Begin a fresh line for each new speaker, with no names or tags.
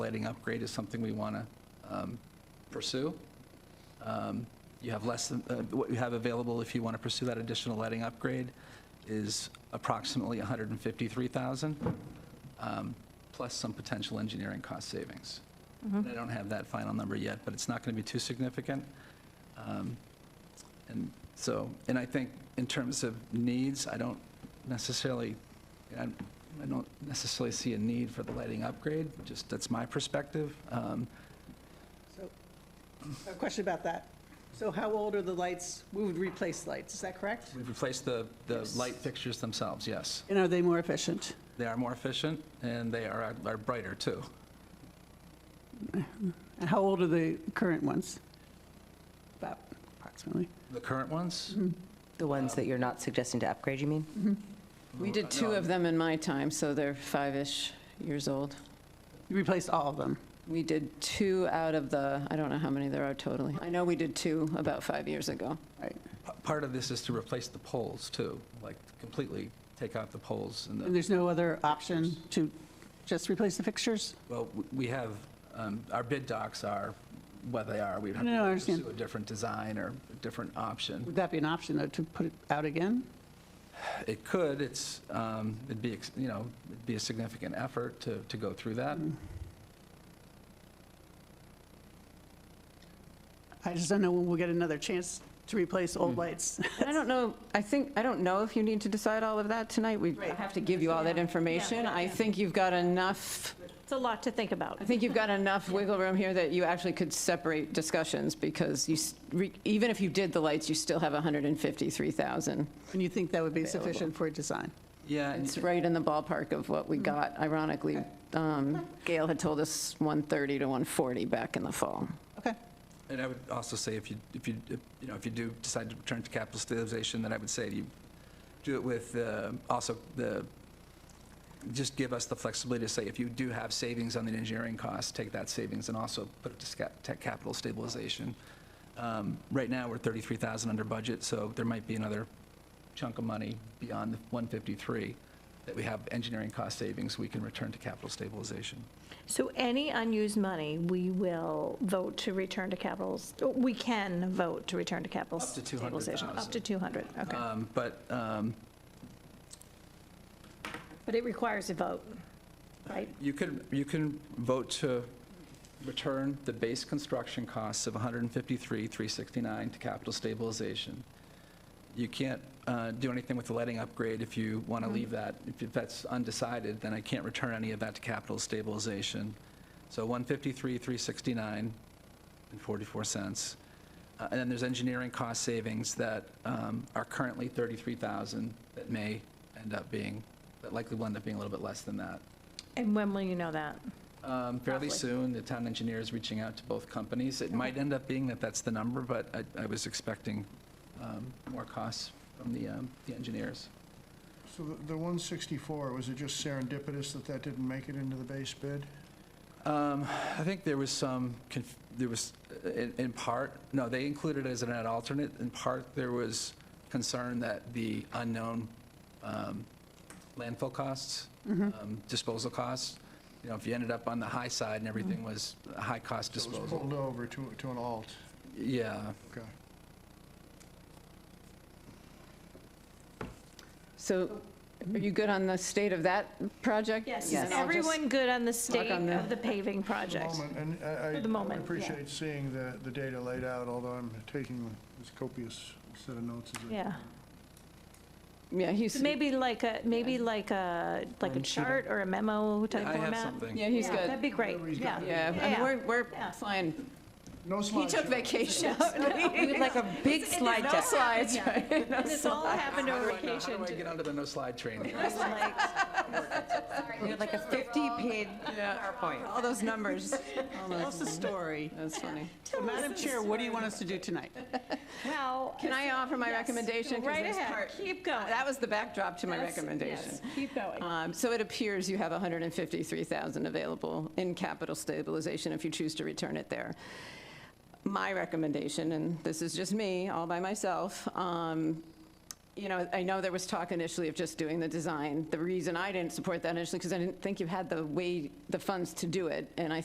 lighting upgrade is something we want to pursue. Um, You have less than, uh, what you have available if you want to pursue that additional lighting upgrade is approximately 153,000, um, plus some potential engineering cost savings. And I don't have that final number yet, but it's not going to be too significant. Um, And so, and I think in terms of needs, I don't necessarily, I I don't necessarily see a need for the lighting upgrade, just, that's my perspective. Um,
So, a question about that. So how old are the lights? We would replace lights, is that correct?
We've replaced the, the
Yes.
light fixtures themselves, yes.
And are they more efficient?
They are more efficient, and they are, are brighter, too.
And how old are the current ones? About approximately.
The current ones?
Mm-hmm.
The ones that you're not suggesting to upgrade, you mean?
We did two of them in my time, so they're five-ish years old.
You replaced all of them.
We did two out of the, I don't know how many there are totally. I know we did two about five years ago.
P- Part of this is to replace the poles, too, like completely take out the poles and the.
And there's no other option to just replace the fixtures?
Well, w- we have, um, our bid docs are what they are. We'd have
No, no, I
to
understand.
pursue a different design or a different option.
Would that be an option, though, to put it out again?
It could, it's, um, it'd be, ex- you know, it'd be a significant effort to, to go through that.
I just don't know when we'll get another chance to replace old lights.
And I don't know, I think, I don't know if you need to decide all of that tonight. We
Right.
have to give you all that information. I think you've got enough,
It's a lot to think about.
I think you've got enough wiggle room here that you actually could separate discussions because you, s- re- even if you did the lights, you still have 153,000.
And you think that would be
Available.
sufficient for a design?
Yeah, and-
It's right in the ballpark of what we
Mm.
got. Ironically, um, Gail had told us 130 to 140 back in the fall.
Okay.
and I would also say if you, if you, if, you know, if you do decide to return to capital stabilization, then I would say you do it with, uh, also the, just give us the flexibility to say if you do have savings on the engineering costs, take that savings and also put it to sca- to capital stabilization. Um, Right now, we're 33,000 under budget, so there might be another chunk of money beyond the 153 that we have engineering cost savings we can return to capital stabilization.
So any unused money, we will vote to return to capitals, we can vote to return to capital
Up to
stabilization.
200,000.
Up to 200, okay.
Um, But, um,
But it requires a vote, right?
You could, you can vote to return the base construction costs of 153,369 to capital stabilization. You can't uh, do anything with the lighting upgrade if you want to leave that. If- If that's undecided, then I can't return any of that to capital stabilization. So 153,369 and 44 cents. Uh, And then there's engineering cost savings that um, are currently 33,000 that may end up being, that likely will end up being a little bit less than that.
And when will you know that?
Um, Fairly
Roughly.
soon, the town engineer is reaching out to both companies. It might end up being that that's the number, but I- I was expecting um, more costs from the um, the engineers.
So the- the 164, was it just serendipitous that that didn't make it into the base bid?
Um, I think there was some, conf- there was, uh, in in part, no, they included it as an alternate. In part, there was concern that the unknown um, landfill costs,
Mm-hmm.
um, disposal costs, you know, if you ended up on the high side and
Mm-hmm.
everything was high-cost
So It was
disposal.
pulled over to, to an alt,
Yeah.
okay.
So are you good on the state of that project?
Yes,
And
is
I'll just-
everyone good on the state
on the-
of the paving project?
Moment, And I- I-
For the moment,
I
yeah.
appreciate seeing the, the data laid out, although I'm taking as copious set of notes as I
Yeah.
Yeah, he's,
So Maybe like a, maybe
Yeah.
like a, like a
One sheet of-
chart or a memo type
I
format?
have something.
yeah, he's
Yeah,
good.
That'd be great,
Whatever he's
yeah.
got.
Yeah, I mean,
Yeah.
we're, we're
Yeah.
flying.
No
He took
slideshow.
vacation.
We would like a big
It's- it's
slide
all
deck.
happened,
Slides,
yeah. And This all happened
How do
over
I know-
vacation.
How do I
too.
get onto the no-slide train here?
It's like-
We would like a 50-page PowerPoint.
All those numbers. All
What's
those-
the story?
That's funny.
So, Madam Chair, what do you want us to do tonight?
Well.
Can I offer my recommendation? 'Cause
Right
this
ahead,
part-
keep going.
That was the backdrop to my
Yes,
recommendation.
yes, Keep going.
Um, So it appears you have 153,000 available in capital stabilization if you choose to return it there. My recommendation, and this is just me, all by myself, um, you know, I know there was talk initially of just doing the design. The reason I didn't support that initially, because I didn't think you had the way, the funds to do it, and I